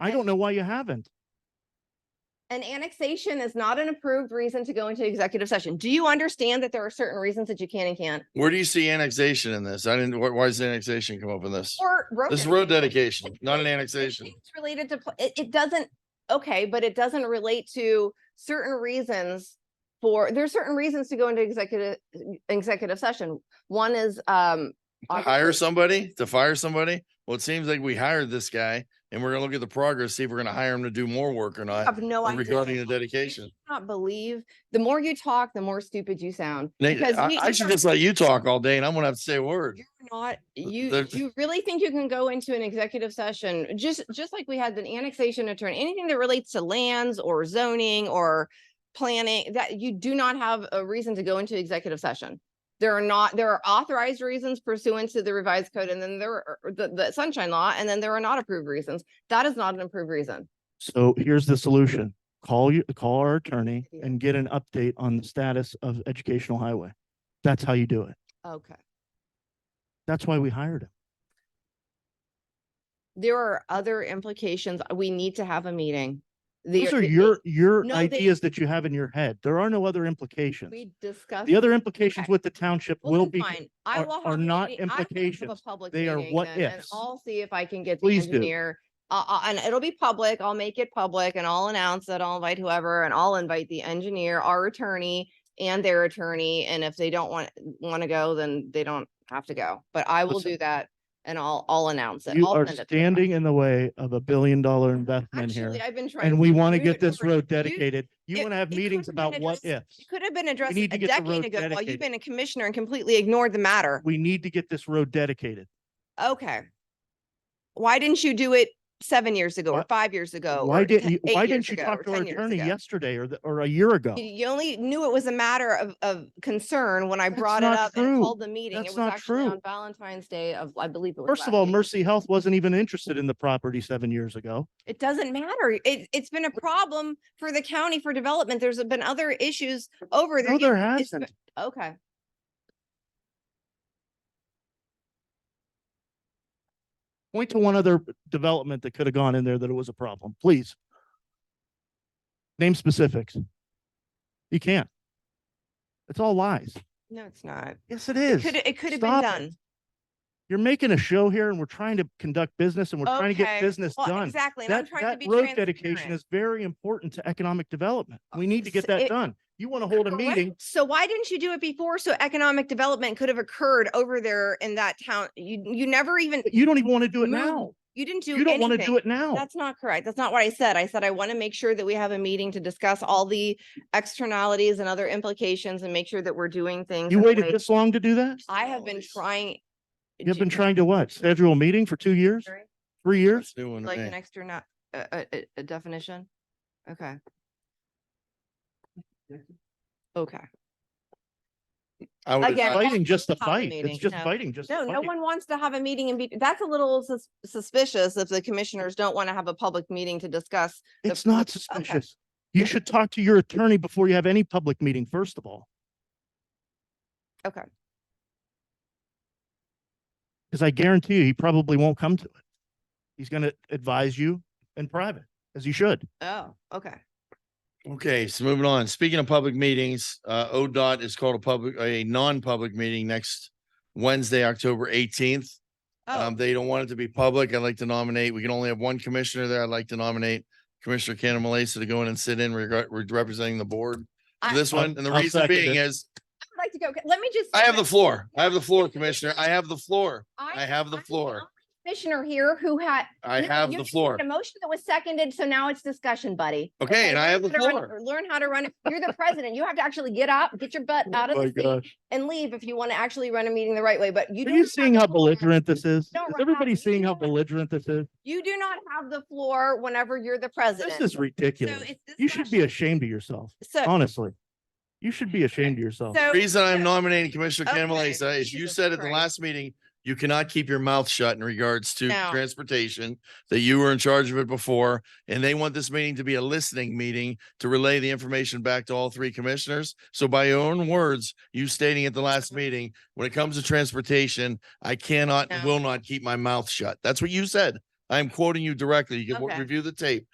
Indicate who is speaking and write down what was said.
Speaker 1: I don't know why you haven't.
Speaker 2: An annexation is not an approved reason to go into executive session. Do you understand that there are certain reasons that you can and can't?
Speaker 3: Where do you see annexation in this? I didn't, why, why does annexation come up in this?
Speaker 2: Or road.
Speaker 3: This is road
Speaker 2: dedication.
Speaker 3: dedication, not an
Speaker 2: It- it-
Speaker 3: annexation.
Speaker 2: It's related to, pl- it, it doesn't, okay, but it doesn't relate to certain reasons for, there's certain reasons to go into executive, executive session. One is, um.
Speaker 3: Hire
Speaker 2: obviously-
Speaker 3: somebody to fire somebody? Well, it seems like we hired this guy and we're gonna look at the progress, see if we're gonna hire him to do more work or
Speaker 2: I
Speaker 3: not
Speaker 2: Have no idea.
Speaker 3: regarding the
Speaker 2: I
Speaker 3: dedication.
Speaker 2: Not believe, the more you talk, the more stupid you sound.
Speaker 3: Nate,
Speaker 2: Because
Speaker 3: I,
Speaker 2: we-
Speaker 3: I
Speaker 2: we
Speaker 3: should
Speaker 2: are-
Speaker 3: just let you talk all day and I'm gonna have to say a word.
Speaker 2: You're not, you,
Speaker 3: there's-
Speaker 2: you really think you can go into an executive session, just, just like we had an annexation attorney, anything that relates to lands or zoning or planning, that you do not have a reason to go into executive session. There are not, there are authorized reasons pursuant to the revised code, and then there are the, the sunshine law, and then there are not approved reasons. That is not an approved reason.
Speaker 1: So here's the solution. Call you, call our attorney and get an update on the status of Educational Highway. That's how you do it.
Speaker 2: Okay.
Speaker 1: That's why we hired him.
Speaker 2: There are other implications. We need to have a meeting. The-
Speaker 1: Those are
Speaker 2: the-
Speaker 1: your, your
Speaker 2: No, they-
Speaker 1: ideas that you have in your head. There are no other implications.
Speaker 2: We discussed.
Speaker 1: The other implications
Speaker 2: Okay.
Speaker 1: with the township
Speaker 2: Well,
Speaker 1: will
Speaker 2: then
Speaker 1: be,
Speaker 2: fine. I
Speaker 1: are-
Speaker 2: will have
Speaker 1: are
Speaker 2: a
Speaker 1: not
Speaker 2: meeting- I will have a
Speaker 1: implications.
Speaker 2: public
Speaker 1: They are
Speaker 2: meeting
Speaker 1: what
Speaker 2: then, and
Speaker 1: ifs.
Speaker 2: I'll see if I can get the
Speaker 1: Please do.
Speaker 2: engineer. Uh, uh, and it'll be public. I'll make it public and I'll announce that I'll invite whoever and I'll invite the engineer, our attorney and their attorney. And if they don't want, want to go, then they don't have to go. But I will
Speaker 1: Listen.
Speaker 2: do that and I'll, I'll announce it.
Speaker 1: you
Speaker 2: I'll
Speaker 1: are
Speaker 2: send it to them.
Speaker 1: standing in the way of a billion dollar investment here.
Speaker 2: Actually, I've been trying.
Speaker 1: And
Speaker 2: to
Speaker 1: we
Speaker 2: get
Speaker 1: want to
Speaker 2: you
Speaker 1: get this
Speaker 2: over-
Speaker 1: road
Speaker 2: you-
Speaker 1: dedicated. You
Speaker 2: it-
Speaker 1: want to have
Speaker 2: it
Speaker 1: meetings
Speaker 2: could've been
Speaker 1: about what
Speaker 2: addressed-
Speaker 1: ifs.
Speaker 2: It could have been addressed a
Speaker 1: need to get the
Speaker 2: decade
Speaker 1: road
Speaker 2: ago while you've
Speaker 1: dedicated.
Speaker 2: been a commissioner and completely ignored the matter.
Speaker 1: We need to get this road dedicated.
Speaker 2: Okay. Why didn't you do it seven years ago or
Speaker 1: Why-
Speaker 2: five years ago?
Speaker 1: Why
Speaker 2: or
Speaker 1: didn't
Speaker 2: te-
Speaker 1: you,
Speaker 2: eight
Speaker 1: why
Speaker 2: years
Speaker 1: didn't you
Speaker 2: ago
Speaker 1: talk
Speaker 2: or
Speaker 1: to our
Speaker 2: 10 years
Speaker 1: attorney
Speaker 2: ago?
Speaker 1: yesterday or, the- or a year ago?
Speaker 2: You- You only knew it was a matter of, of concern when I
Speaker 1: That's
Speaker 2: brought it
Speaker 1: not
Speaker 2: up
Speaker 1: true.
Speaker 2: and called the meeting. It
Speaker 1: That's
Speaker 2: was
Speaker 1: not
Speaker 2: actually
Speaker 1: true.
Speaker 2: on Valentine's Day of, I believe it was.
Speaker 1: First of
Speaker 2: last
Speaker 1: all,
Speaker 2: week.
Speaker 1: Mercy Health wasn't even interested in the property seven years ago.
Speaker 2: It doesn't matter. It, it's been a problem for the county for development. There's been other issues over there.
Speaker 1: No, there
Speaker 2: It's- it's-
Speaker 1: hasn't.
Speaker 2: Okay.
Speaker 1: Point to one other development that could have gone in there that it was a problem, please. Name specifics. You can't. It's all lies.
Speaker 2: No, it's not.
Speaker 1: Yes, it
Speaker 2: It
Speaker 1: is.
Speaker 2: could, it could have been
Speaker 1: Stop it.
Speaker 2: done.
Speaker 1: You're making a show here and we're trying to conduct business and we're trying to
Speaker 2: Okay.
Speaker 1: get business
Speaker 2: Well,
Speaker 1: done.
Speaker 2: Exactly. And I'm
Speaker 1: That,
Speaker 2: trying to
Speaker 1: that
Speaker 2: be
Speaker 1: road dedication
Speaker 2: transparent.
Speaker 1: is very important to economic development. We need to
Speaker 2: s-
Speaker 1: get that
Speaker 2: it-
Speaker 1: done. You want to hold a
Speaker 2: Correct.
Speaker 1: meeting,
Speaker 2: So why didn't you do it before? So economic development could have occurred over there in that town. You, you never even,
Speaker 1: but you don't even want to do it
Speaker 2: Move.
Speaker 1: now.
Speaker 2: you didn't do
Speaker 1: You don't want to do
Speaker 2: anything.
Speaker 1: it now.
Speaker 2: That's not correct. That's not what I said. I said I want to make sure that we have a meeting to discuss all the externalities and other implications and make sure that we're doing things.
Speaker 1: You
Speaker 2: in a
Speaker 1: waited
Speaker 2: way-
Speaker 1: this long to do that?
Speaker 2: I have been trying.
Speaker 1: You've
Speaker 2: do-
Speaker 1: been trying to what? Schedule a meeting for two years,
Speaker 2: Right.
Speaker 1: three years?
Speaker 3: That's new one to
Speaker 2: Like
Speaker 3: me.
Speaker 2: an extra not, a, a, a definition? Okay. Okay.
Speaker 3: I would-
Speaker 2: again,
Speaker 3: I-
Speaker 2: that's
Speaker 1: Fighting just to
Speaker 2: not a
Speaker 1: fight.
Speaker 2: meeting,
Speaker 1: It's just
Speaker 2: no.
Speaker 1: fighting, just
Speaker 2: No,
Speaker 1: to
Speaker 2: no
Speaker 1: fight.
Speaker 2: one wants to have a meeting and be, that's a little sus- suspicious if the commissioners don't want to have a public meeting to discuss the-
Speaker 1: It's not
Speaker 2: okay.
Speaker 1: suspicious. You should talk to your attorney before you have any public meeting, first of all.
Speaker 2: Okay.
Speaker 1: Because I guarantee you, he probably won't come to it. He's gonna advise you in private, as he should.
Speaker 2: Oh, okay.
Speaker 3: Okay, so moving on. Speaking of public meetings, uh, ODOT is called a public, a non-public meeting next Wednesday, October eighteenth.
Speaker 2: Oh,
Speaker 3: Um, they don't want it to be public. I'd like to nominate, we can only have one commissioner there. I'd like to nominate Commissioner Cannon Malasa to go in and sit in regard, re- representing the board. for
Speaker 2: I-
Speaker 3: This one,
Speaker 1: I'll-
Speaker 3: and the
Speaker 1: I'll
Speaker 3: reason
Speaker 1: second
Speaker 3: being
Speaker 1: it.
Speaker 3: is,
Speaker 2: I'd like to go. Let me just.
Speaker 3: I have the floor. I have the floor, Commissioner. I have the floor. I have the
Speaker 2: I'm
Speaker 3: floor.
Speaker 2: Commissioner here who had.
Speaker 3: I
Speaker 2: No,
Speaker 3: have
Speaker 2: you
Speaker 3: the
Speaker 2: just
Speaker 3: floor.
Speaker 2: made A motion that was seconded, so now it's discussion, buddy.
Speaker 3: Okay, and I have the
Speaker 2: learn how to run-
Speaker 3: floor.
Speaker 2: or Learn how to run. it. You're the president. You have to actually get up, get your
Speaker 3: Oh
Speaker 2: butt out of the seat and leave if you want to actually run a meeting the right way, but you.
Speaker 1: Are
Speaker 2: do
Speaker 1: you
Speaker 2: not
Speaker 1: seeing
Speaker 2: have
Speaker 1: how
Speaker 2: the floor.
Speaker 1: belligerent this is? Is
Speaker 2: don't run out
Speaker 1: everybody
Speaker 2: of
Speaker 1: seeing how
Speaker 2: meeting.
Speaker 1: belligerent this is?
Speaker 2: You do not have the floor whenever you're the president.
Speaker 1: This is
Speaker 2: So
Speaker 1: ridiculous.
Speaker 2: it's
Speaker 1: You should be
Speaker 2: discussion.
Speaker 1: ashamed of yourself,
Speaker 2: So,
Speaker 1: honestly. You should be ashamed of yourself.
Speaker 2: so.
Speaker 3: Reason I'm
Speaker 2: so-
Speaker 3: nominating Commissioner Cannon
Speaker 2: Okay,
Speaker 3: Malasa is you
Speaker 2: Jesus
Speaker 3: said at the
Speaker 2: Christ.
Speaker 3: last meeting, you cannot keep your mouth shut in regards to
Speaker 2: No.
Speaker 3: transportation, that you were in charge of it before, and they want this meeting to be a listening meeting to relay the information back to all three commissioners. So by your own words, you stating at the
Speaker 2: Mm-hmm.
Speaker 3: last meeting, when it comes to transportation, I cannot and
Speaker 2: No.
Speaker 3: will not keep my mouth shut. That's what you said. I'm quoting you directly. You can
Speaker 2: Okay.
Speaker 3: review the tape.